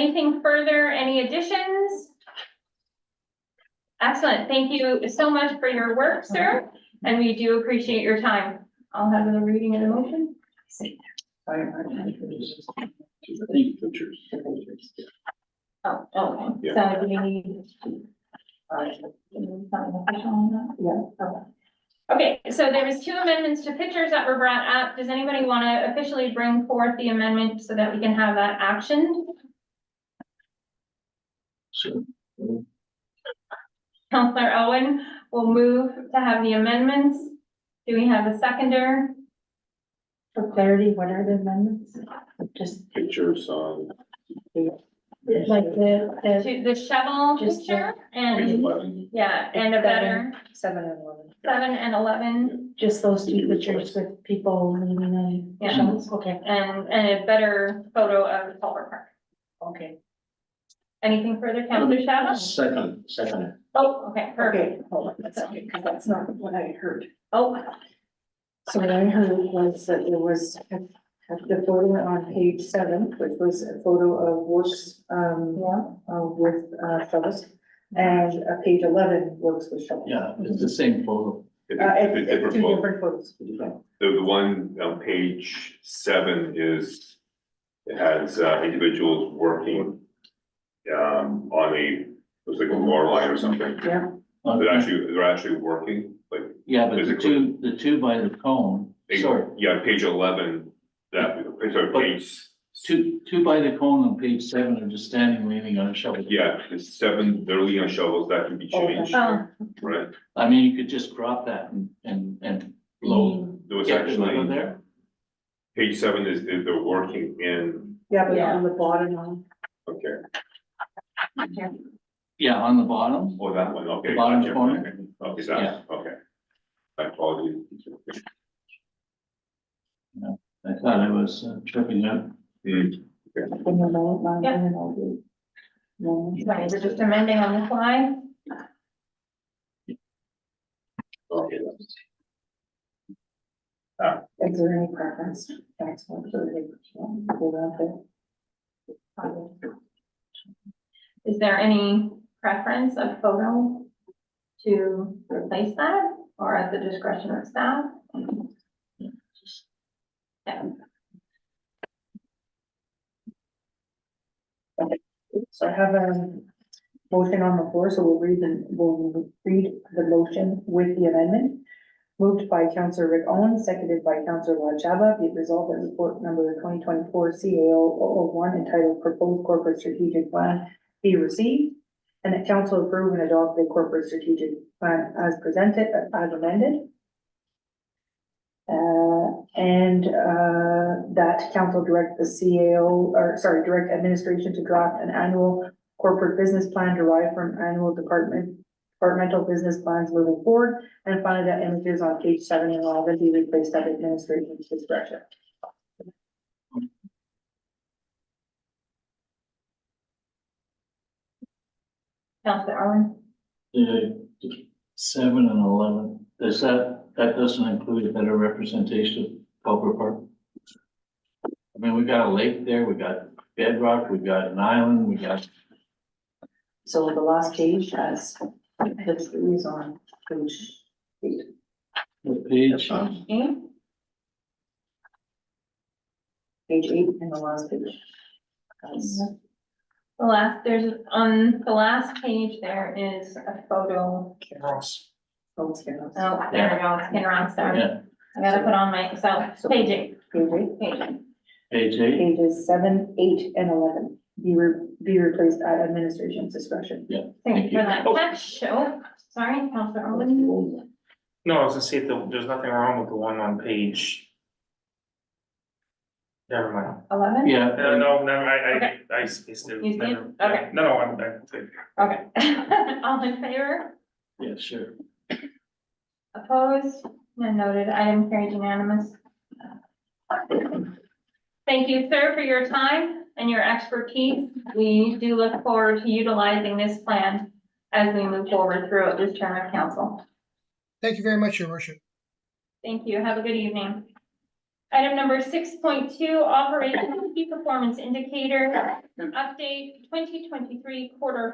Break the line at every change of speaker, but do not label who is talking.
anything further, any additions? Excellent, thank you so much for your work, sir, and we do appreciate your time. I'll have the reading of the motion. Oh, okay, so do we need? Okay, so there was two amendments to pictures that were brought up. Does anybody want to officially bring forth the amendment so that we can have that action? Counselor Owen will move to have the amendments. Do we have a seconder?
For clarity, what are the amendments? Just
Pictures on
like the, the
To the shovel
Just the-
picture
page
and,
eleven.
yeah, and a better
seven and eleven,
seven and eleven
just those two pictures with people leaving and.
Yeah.
shovels? Okay,
and, and a better photo of Culver Park.
okay.
Anything further, Counselor Shabbat?
Second, second.
Oh, okay, perfect.
Okay, hold on, that's okay, because that's not what I heard.
Oh,
So what I heard was that there was a- a- the photo on page seven, which was a photo of Works, um, uh, with, uh, Phyllis. And, uh, page eleven, Works with Phyllis.
Yeah, it's the same photo.
Uh,
It's
it's, it's
it's different
two
book.
different photos.
Different.
The, the one on page seven is, it has uh, individuals working um, on a, looks like a mower line or something.
Yeah.
They're actually, they're actually working, like,
Uh, Yeah, but the
physically.
two, the two by the cone,
they-
sorry,
yeah, on page eleven, that, it's a
But-
page,
two, two by the cone on page seven are just standing leaning on a shovel.
yeah, it's seven, they're leaning on shovels, that can be
Okay.
changed,
oh,
right?
I mean, you could just crop that and, and, and blow.
There was
get the leather
actually,
there.
page seven is, is they're working in,
Yeah, but
Yeah.
on the bottom one.
okay,
Yeah, on the bottom,
oh, that one, okay.
the bottom
gotcha,
corner.
Okay,
Yeah.
that, okay. My apologies.
I thought I was uh, tripping up.
Hmm.
From the lower line
Yeah.
and all the- No.
sorry, we're just amending on the fly.
Okay.
Is there any preference? That's one for the, hold on there.
Is there any preference of photo to replace that or at the discretion of staff? Yeah.
So I have a motion on the floor, so we'll read the, we'll read the motion with the amendment. Moved by Counselor Rick Owen, seconded by Counselor Rod Chaba, be it resolved that report number twenty twenty-four C A O one entitled Proposed Corporate Strategic Plan be received. And that council approve and adopt the corporate strategic plan as presented, as amended. Uh, and, uh, that council direct the CAO, or sorry, direct administration to draft an annual corporate business plan derived from annual department, departmental business plans moving forward. And finally, that images on page seven and all that be replaced at administration's discretion.
Counselor Owen?
The seven and eleven, does that, that doesn't include a better representation of Culver Park? I mean, we got a lake there, we got bedrock, we got an island, we got,
So the last page has the trees on page eight.
what page?
Okay.
Page eight and the last page. That's-
The last, there's, on the last page, there is a photo.
oh, it's here, that's-
Oh, there we go, it's been wrong, sorry.
Yeah,
I gotta put on my, so, page eight,
Page eight,
page eight.
page eight,
pages seven, eight, and eleven, be re- be replaced at administration's discretion.
Thank you for that
Thank you.
catch, oh, sorry, Counselor Owen.
No, I was gonna say, that there's nothing wrong with the one on page. Never mind.
Eleven?
yeah.
No, Uh, no, no, I,
Okay.
I, I spaced it.
You did?
Never-
Okay.
No, no, I'm, I'm good.
Okay. All in favor?
Yeah, sure.
Opposed? None noted. Item carried unanimous. Thank you, sir, for your time and your expertise. We do look forward to utilizing this plan as we move forward throughout this term of council.
Thank you very much, Your Worship.
Thank you. Have a good evening. Item number six point two, operational key performance indicator, update twenty twenty-three quarter